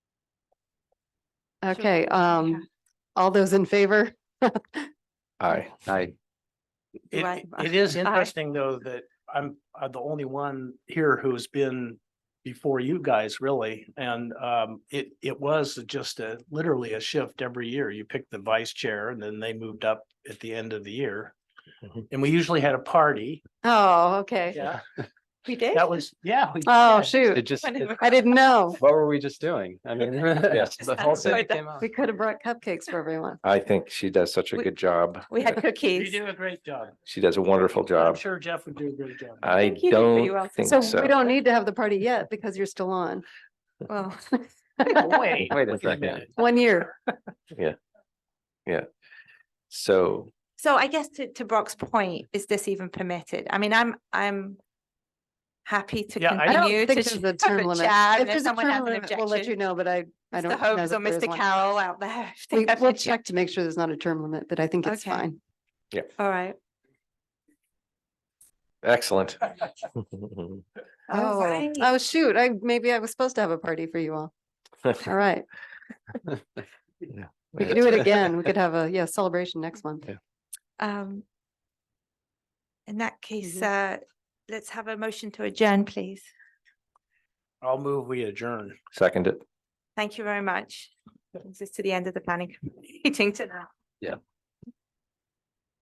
Okay, we- yeah. um, all those in favor? Aye. Aye. It, Right. it- it is I- interesting though that I'm, uh the only one here who's been before you guys really. And um, it, it was just a, literally a shift every year. You picked the vice chair and then they moved up at the end of the year. Mhm. And we usually had a party. Oh, okay. Yeah, We did? that was, yeah. we- Oh, It shoot. just, Kind it- of- I didn't know. what were we just doing? I mean, yes, the whole Just thing enjoyed came out. We could have brought cupcakes for everyone. I think she does such a We- good job. We had You cookies. do a great job. She does a wonderful I'm job. sure Jeff would do a great job. I Thank you, you did pretty well. don't think So so. we don't need to have the party yet because you're still on. Well, Wait Wait a second. minute. One year. So, so I guess to, to Brock's point, is this even permitted? I mean, I'm, I'm happy to Yeah, I I don't continue to think there's sh- a have term a limit. chat. If And if there's a someone has term an limit, we'll let you objection, know, but I, I Mr. don't know Hobbs or that there is Mr. one. Carroll out there. if they We, have an we'll objection. check to make sure there's not a term limit, but I think it's Okay. fine. All right. excellent. All Oh, right. oh, shoot. I, maybe I was supposed to have a party for you all. All right. We could do it again. We could have a, yeah, celebration next month. Yeah. Um, in that case, uh, let's have a motion to adjourn, please. I'll move, we adjourn. Second it. Thank you very much. Brings us to the end of the planning meeting tonight. Yeah.